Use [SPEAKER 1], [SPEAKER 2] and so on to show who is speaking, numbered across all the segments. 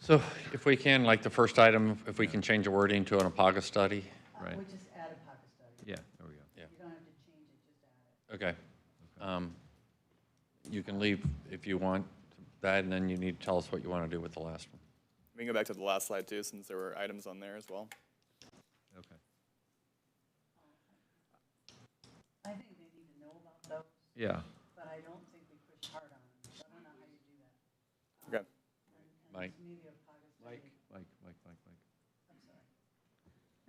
[SPEAKER 1] So if we can, like the first item, if we can change the wording to an APAGA study?
[SPEAKER 2] Right,
[SPEAKER 3] Uh, We just add a pocket study.
[SPEAKER 2] yeah, there we go.
[SPEAKER 3] You don't have to change it, just add it.
[SPEAKER 1] Okay. Um, You can leave if you want that, and then you need to tell us what you want to do with the last one.
[SPEAKER 4] We can go back to the last slide too, since there were items on there as well.
[SPEAKER 2] Okay.
[SPEAKER 3] I think they need to know about those,
[SPEAKER 2] Yeah,
[SPEAKER 3] but I don't think we push hard on them. So I don't know how you do that.
[SPEAKER 4] Okay.
[SPEAKER 1] Mike?
[SPEAKER 3] Maybe a pocket study.
[SPEAKER 2] like, like, like, like.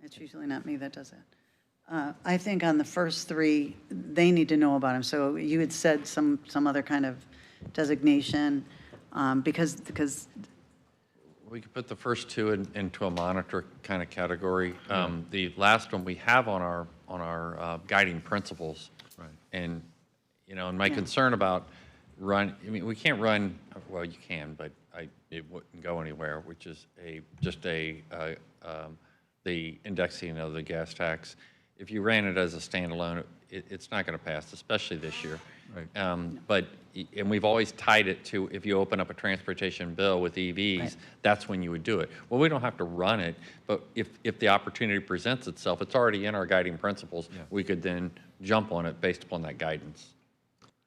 [SPEAKER 3] It's usually not me that does that. Uh, I think on the first three, they need to know about them. So you had said some, some other kind of designation, um, because, because
[SPEAKER 1] We could put the first two in- into a monitor kind of category. Um, The last one we have on our, on our uh, guiding principles.
[SPEAKER 2] Right.
[SPEAKER 1] And, you know, and my concern about run, I mean, we can't run, well, you can, but I, it wouldn't go anywhere, which is a, just a, uh, um, the indexing of the gas tax. If you ran it as a standalone, it, it's not going to pass, especially this year.
[SPEAKER 2] Right.
[SPEAKER 1] Um, But, y- and we've always tied it to, if you open up a transportation bill with EVs, that's when you would do it. Well, we don't have to run it, but if, if the opportunity presents itself, it's already in our guiding principles. We could then jump on it based upon that guidance.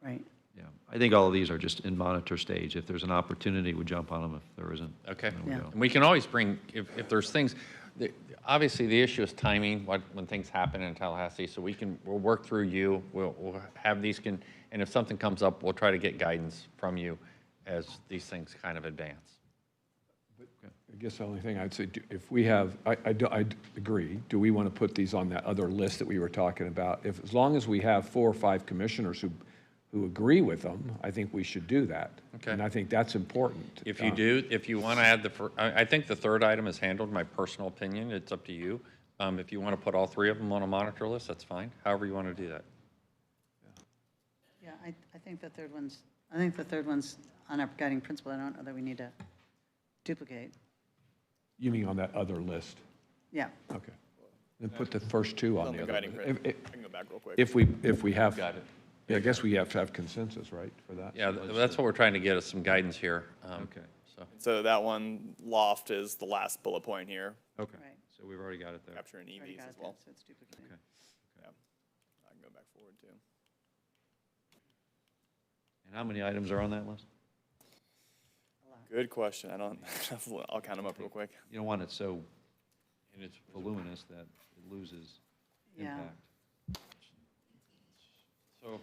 [SPEAKER 3] Right.
[SPEAKER 2] Yeah, I think all of these are just in monitor stage. If there's an opportunity, we jump on them. If there isn't,
[SPEAKER 1] Okay?
[SPEAKER 2] then we
[SPEAKER 3] Yeah.
[SPEAKER 2] don't.
[SPEAKER 1] And we can always bring, if, if there's things, the- obviously, the issue is timing, what, when things happen in Tallahassee. So we can, we'll work through you, we'll, we'll have these can, and if something comes up, we'll try to get guidance from you as these things kind of advance.
[SPEAKER 5] I guess the only thing I'd say, do- if we have, I, I do- I d- agree, do we want to put these on that other list that we were talking about? If, as long as we have four or five commissioners who, who agree with them, I think we should do that.
[SPEAKER 1] Okay.
[SPEAKER 5] And I think that's important.
[SPEAKER 1] If you
[SPEAKER 5] Uh,
[SPEAKER 1] do, if you want to add the, fir- I, I think the third item is handled, my personal opinion, it's up to you. Um, if you want to put all three of them on a monitor list, that's fine, however you want to do that.
[SPEAKER 3] Yeah, I, I think the third one's, I think the third one's on our guiding principle. I don't know that we need to duplicate.
[SPEAKER 5] You mean on that other list?
[SPEAKER 3] Yeah,
[SPEAKER 5] Okay. Then put the first two on
[SPEAKER 4] On
[SPEAKER 5] the
[SPEAKER 4] the
[SPEAKER 5] other.
[SPEAKER 4] guiding
[SPEAKER 5] list.
[SPEAKER 4] principle,
[SPEAKER 5] If-
[SPEAKER 4] I can go back real quick.
[SPEAKER 5] If we, if we have.
[SPEAKER 1] Got it.
[SPEAKER 5] Yeah, I guess we have to have consensus, right, for that?
[SPEAKER 1] Yeah, th- that's what we're trying to get, is some guidance here. um,
[SPEAKER 2] Okay.
[SPEAKER 1] So,
[SPEAKER 4] So that one, loft is the last bullet point here,
[SPEAKER 2] Okay,
[SPEAKER 3] Right.
[SPEAKER 2] so we've already got it there.
[SPEAKER 4] capturing
[SPEAKER 3] already got
[SPEAKER 4] EVs
[SPEAKER 3] it
[SPEAKER 4] as
[SPEAKER 3] there,
[SPEAKER 4] well.
[SPEAKER 3] so it's duplicated.
[SPEAKER 4] I can go back forward too.
[SPEAKER 2] And how many items are on that list?
[SPEAKER 4] Good question. I don't, I'll count them up real quick.
[SPEAKER 2] You don't want it so
[SPEAKER 1] and it's,
[SPEAKER 2] voluminous that it loses
[SPEAKER 3] Yeah.
[SPEAKER 2] impact.
[SPEAKER 1] so,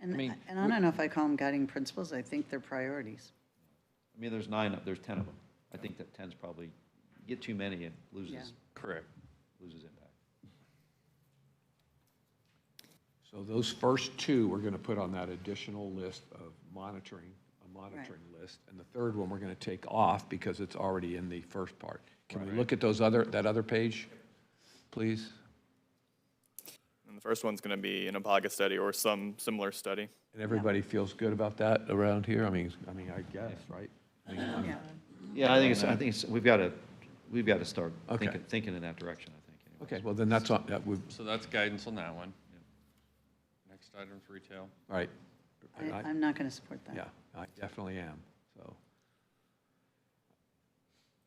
[SPEAKER 3] And,
[SPEAKER 1] I mean,
[SPEAKER 3] and I don't know if I call them guiding principles, I think they're priorities.
[SPEAKER 2] I mean, there's nine, there's 10 of them. I think that 10's probably, you get too many, it loses,
[SPEAKER 1] correct.
[SPEAKER 2] loses impact.
[SPEAKER 5] So those first two, we're going to put on that additional list of monitoring, a monitoring list. And the third one, we're going to take off because it's already in the first part. Can we look at those other, that other page, please?
[SPEAKER 4] And the first one's going to be an APAGA study or some similar study.
[SPEAKER 5] And everybody feels good about that around here? I mean, I mean, I guess, right? I mean, I'm-
[SPEAKER 3] Yeah,
[SPEAKER 2] Yeah, I think it's, I think it's, we've got to, we've got to start
[SPEAKER 5] Okay.
[SPEAKER 2] thinking, thinking in that direction, I think. anyway.
[SPEAKER 5] Okay, well, then that's, on. that would,
[SPEAKER 1] So that's guidance on that one. Next item's retail.
[SPEAKER 5] right. And
[SPEAKER 3] I,
[SPEAKER 5] I-
[SPEAKER 3] I'm not going to support that.
[SPEAKER 5] Yeah, I definitely am, so.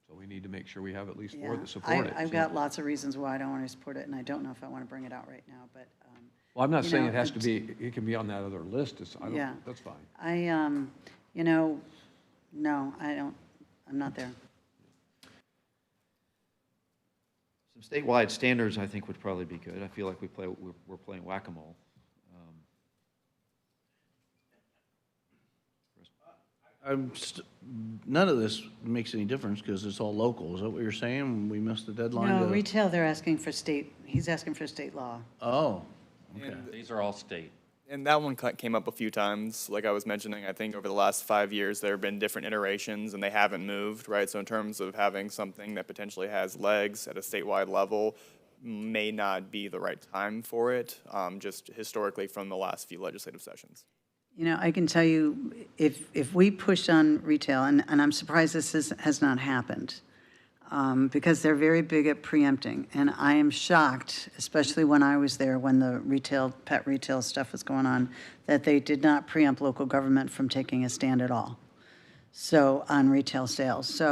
[SPEAKER 5] So we need to make sure we have at least four
[SPEAKER 3] Yeah.
[SPEAKER 5] that support it.
[SPEAKER 3] I, I've
[SPEAKER 5] so-
[SPEAKER 3] got lots of reasons why I don't want to support it, and I don't know if I want to bring it out right now, but, um,
[SPEAKER 5] Well, I'm not
[SPEAKER 3] you
[SPEAKER 5] saying
[SPEAKER 3] know,
[SPEAKER 5] it has to
[SPEAKER 3] it's-
[SPEAKER 5] be, it can be on that other list, it's, I
[SPEAKER 3] Yeah.
[SPEAKER 5] don't, that's fine.
[SPEAKER 3] I, um, you know, no, I don't, I'm not there.
[SPEAKER 2] Some statewide standards, I think, would probably be good. I feel like we play, we're, we're playing whack-a-mole. Um,
[SPEAKER 6] I'm, st- none of this makes any difference because it's all local. Is that what you're saying? We missed the
[SPEAKER 3] No,
[SPEAKER 6] deadline to?
[SPEAKER 3] retail, they're asking for state, he's asking for state law.
[SPEAKER 6] Oh, okay.
[SPEAKER 4] And,
[SPEAKER 1] These are all state.
[SPEAKER 4] and that one ca- came up a few times. Like I was mentioning, I think over the last five years, there have been different iterations and they haven't moved, right? So in terms of having something that potentially has legs at a statewide level, may not be the right time for it, um, just historically from the last few legislative sessions.
[SPEAKER 3] You know, I can tell you, if, if we push on retail, and, and I'm surprised this has, has not happened, um, because they're very big at preempting, and I am shocked, especially when I was there, when the retail, pet retail stuff was going on, that they did not preempt local government from taking a stand at all, so, on retail sales. So